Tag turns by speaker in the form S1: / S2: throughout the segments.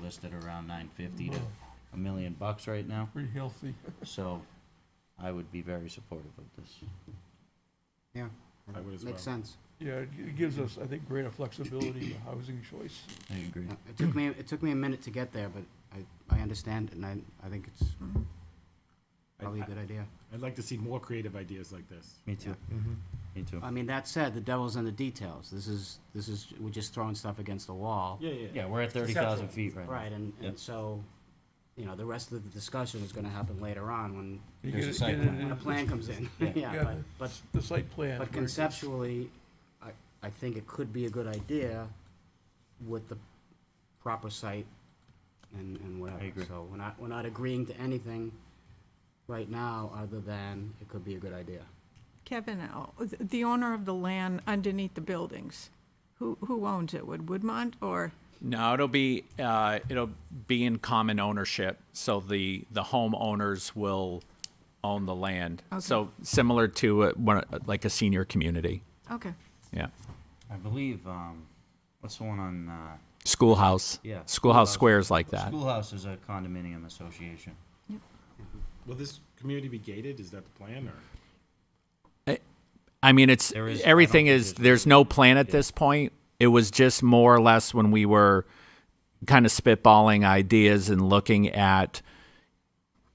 S1: listed around nine fifty to a million bucks right now,
S2: Oh, Pretty healthy.
S1: so I would be very supportive of this.
S3: Yeah.
S4: I would as
S3: Makes
S4: well.
S3: sense.
S2: Yeah, it g- it gives us, I think, greater flexibility in housing choice.
S1: I agree.
S3: Yeah, Uh, It took me, it took me a minute to get there, but I, I understand and I, I think it's probably a
S4: I-
S3: good idea.
S4: I'd like to see more creative ideas like this.
S1: Me too, me too.
S3: I mean, that said, the devil's in the details. This is, this is, we're just throwing stuff against the wall.
S4: Yeah, yeah.
S1: Yeah, we're at thirty thousand feet right now.
S3: Right, and,
S1: Yep.
S3: and so, you know, the rest of the discussion is gonna happen later on when,
S2: You
S1: There's
S2: get
S1: a
S2: it-
S1: site
S2: get it
S1: plan.
S2: in-
S3: when the plan comes in.
S1: Yeah.
S3: Yeah,
S2: Yeah,
S3: but, but
S2: s- the site plan.
S3: But
S2: versus-
S3: conceptually, I, I think it could be a good idea with the proper site and, and whatever.
S1: agree.
S3: So we're not, we're not agreeing to anything right now, other than it could be a good idea.
S5: Kevin, uh, th- the owner of the land underneath the buildings, who, who owns it? Would Woodmont or,
S6: No, it'll be, uh, it'll be in common ownership, so the, the homeowners will own the land. So similar to, uh, one- like a senior community,
S5: okay.
S6: yeah.
S1: I believe, um, what's the one on, uh,
S6: Schoolhouse.
S1: Yeah,
S6: Schoolhouse
S1: schoolhouse.
S6: squares like that.
S1: Schoolhouse is a condominium association.
S4: Will this community be gated? Is that the plan or?
S6: I mean, it's,
S1: There is- I don't
S6: everything
S1: think
S6: is,
S1: there's-
S6: there's no plan at this point. It was just more or less when we were kind of spitballing ideas and looking at,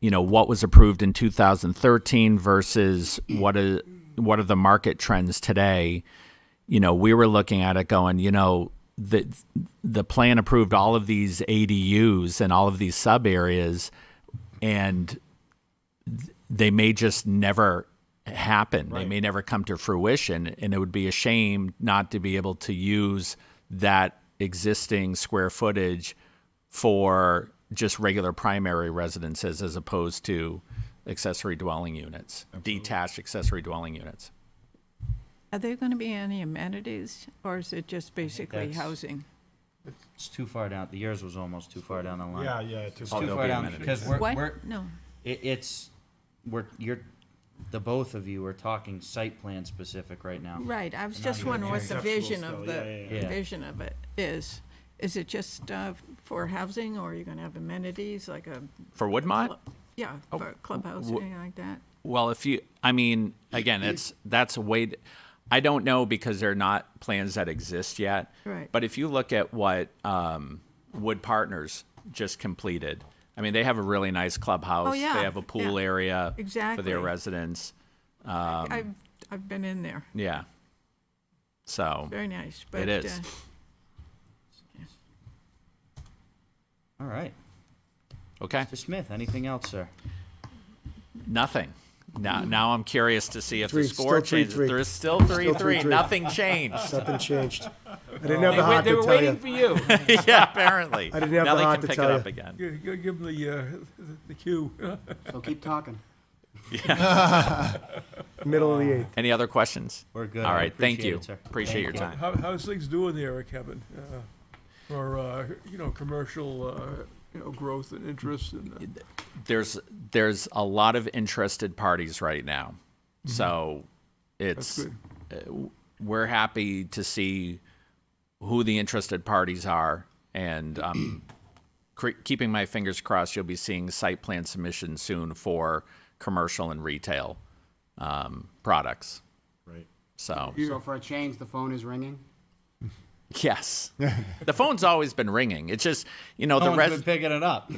S6: you know, what was approved in 2013 versus what is, what are the market trends today? You know, we were looking at it going, you know, the, the plan approved all of these ADUs and all of these sub areas and they may just never happen. They may never come to fruition, and it would be a shame not to be able to use that existing square footage for just regular primary residences as opposed to accessory dwelling units, detached accessory dwelling units.
S5: Are there going to be any amenities, or is it just basically
S1: that's-
S5: housing?
S1: It's too far down, the yours was almost too far down the line.
S4: Yeah, yeah. too
S1: It's
S4: far.
S1: too
S6: Oh, there'll
S1: far
S6: be
S1: down,
S6: amenities.
S1: because we're,
S5: What?
S1: we're,
S5: No.
S1: it, it's, we're, you're, the both of you are talking site plan specific right now.
S5: Right, I was
S1: Not
S5: just
S1: even
S5: wondering what the
S4: conceptual
S5: vision
S4: still, yeah,
S5: of the,
S4: yeah,
S1: yeah. Yeah.
S5: vision of it is. Is it just uh, for housing, or are you going to have amenities, like a,
S6: For Woodmont?
S5: yeah, for clubhouse,
S6: Oh, wh-
S5: or anything like that?
S6: Well, if you, I mean, again, it's that's a way. I don't know because they're not plans that exist yet.
S5: Right.
S6: But if you look at what um, Wood Partners just completed, I mean, they have a really nice clubhouse.
S5: Oh, yeah,
S6: They have a pool
S5: yeah.
S6: area for
S5: Exactly.
S6: their residents. um,
S5: I've, I've been in there,
S6: Yeah. So
S5: very nice, but.
S6: it is.
S5: uh,
S1: All right,
S6: Okay.
S1: Mr. Smith, anything else, sir?
S6: Nothing. Now, now I'm curious to see if
S7: Three,
S6: the score
S7: still three,
S6: changes.
S7: three.
S6: There is still three
S7: Still three,
S6: three.
S7: three.
S6: Nothing changed.
S7: Nothing changed. I didn't have the heart
S6: they
S7: to
S6: were
S7: tell
S6: waiting
S7: you.
S6: for you. yeah, apparently.
S7: I didn't have
S6: now
S7: the
S6: they
S7: heart
S6: can
S7: to
S6: pick
S7: tell
S6: it
S7: you.
S6: up again.
S2: Yeah, you gotta Give them the, uh, the- the cue. Uh,
S3: So keep talking.
S7: Middle of the eighth.
S6: Any other questions?
S1: We're good.
S6: All
S1: I
S6: right, thank
S1: appreciate
S6: you.
S1: it, sir.
S6: Appreciate your
S1: Thank you.
S6: time.
S2: How, how's things doing there, Kevin? Uh, For, uh, you know, commercial, uh, you know, growth and interest and. uh,
S6: There's there's a lot of interested parties right now,
S1: Mm-hmm.
S6: so it's
S2: good.
S6: uh, w- we're happy to see who the interested parties are, and um, cre- keeping my fingers crossed, you'll be seeing site plan submissions soon for commercial and retail um, products.
S4: Right.
S6: So
S3: So for a change, the phone is ringing.
S6: yes, the phone's always been ringing. It's just you know
S1: No
S6: the
S1: one's
S6: rest.
S1: been picking it up.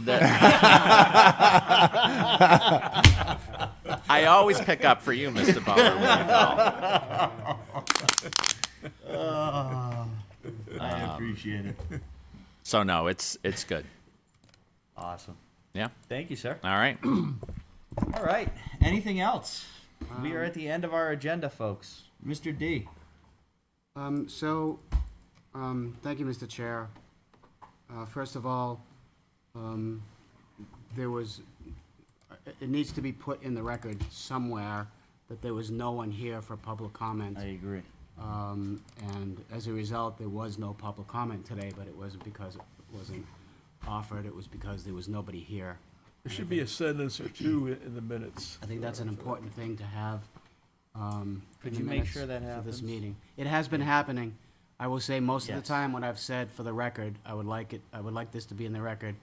S6: I always pick up for you, Mr. Butler. when you call.
S1: I appreciate it.
S6: So no, it's it's good.
S1: Awesome.
S6: Yeah.
S1: Thank you, sir.
S6: All right.
S1: All right, anything else? We are at the end of our agenda, folks. Mr. D.
S3: Um, so, um, thank you, Mr. Chair. Uh, first of all, um, there was, uh, it- it needs to be put in the record somewhere that there was no one here for public comment.
S1: I agree.
S3: Um, and as a result, there was no public comment today, but it wasn't because it wasn't offered, it was because there was nobody here.
S2: There should be a sentence or two in- in the minutes.
S3: I think that's an important thing to have, um, in
S1: Could
S3: the
S1: you make
S3: minutes
S1: sure that
S3: For this
S1: happens?
S3: meeting. It has been happening, I will say most of the
S1: Yes.
S3: time, what I've said for the record, I would like it, I would like this to be in the record,